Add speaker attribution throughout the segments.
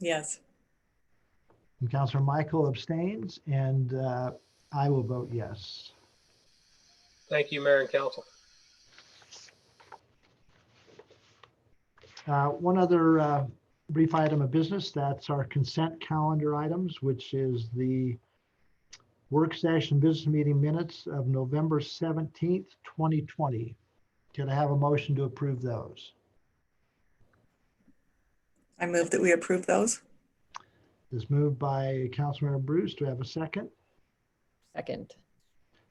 Speaker 1: yes.
Speaker 2: And Counselor Michael abstains, and uh, I will vote yes.
Speaker 3: Thank you, Mayor and Council.
Speaker 2: Uh, One other uh, brief item of business, that's our consent calendar items, which is the work session business meeting minutes of November 17th, 2020. Can I have a motion to approve those?
Speaker 1: I move that we approve those.
Speaker 2: Is moved by Councilmember Bruce. Do I have a second?
Speaker 4: Second.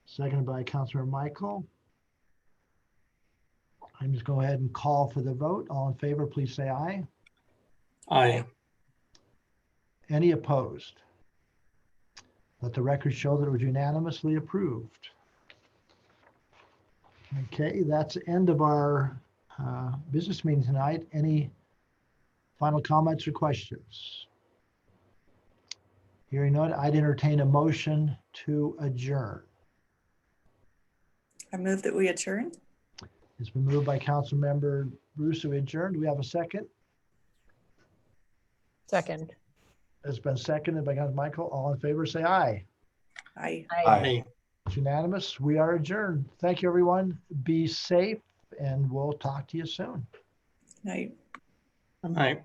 Speaker 2: Seconded by Councilmember Michael. I'm just go ahead and call for the vote. All in favor, please say aye.
Speaker 5: Aye.
Speaker 2: Any opposed? Let the record show that it was unanimously approved. Okay, that's the end of our uh, business meeting tonight. Any final comments or questions? Hearing none, I'd entertain a motion to adjourn.
Speaker 1: I move that we adjourn.
Speaker 2: It's been moved by Councilmember Bruce to adjourn. Do we have a second?
Speaker 4: Second.
Speaker 2: It's been seconded by Councilmember Michael. All in favor, say aye.
Speaker 1: Aye.
Speaker 2: It's unanimous. We are adjourned. Thank you, everyone. Be safe, and we'll talk to you soon.
Speaker 1: Night.
Speaker 5: Aye.